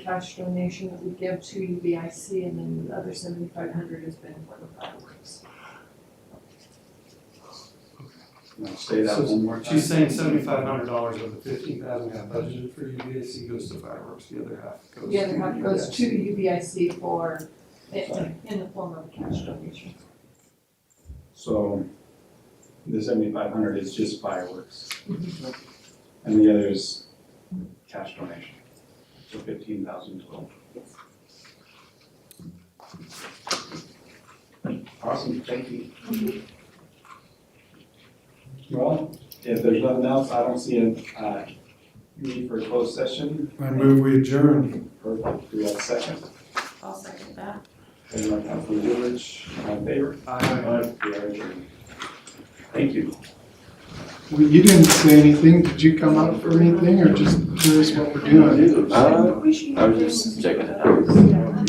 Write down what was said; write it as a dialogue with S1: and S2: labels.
S1: cash donation that we give to UBIC, and then the other seventy-five hundred has been for the fireworks.
S2: Now say that
S3: So
S2: one more time.
S3: She's saying seventy-five hundred dollars of the fifteen thousand we have budgeted for UVAC goes to fireworks, the other half goes.
S1: The other half goes
S3: UVAC.
S1: to UBIC for, in the form of cash donation.
S2: So the seventy-five hundred is just fireworks.
S3: Mm-hmm.
S2: And the other is cash donation, so fifteen thousand total. Awesome, thank you. Well, if there's nothing else, I don't see a, uh, need for a closed session.
S3: I move we adjourn.
S2: Perfect, do we have a second?
S4: I'll second that.
S2: Second by Councilman Goodrich, all in favor? Aye. We are adjourned. Thank you.
S5: Well, you didn't say anything, did you come up for anything, or just curious what we're doing?
S6: Uh, I was just checking it out.
S1: Yeah.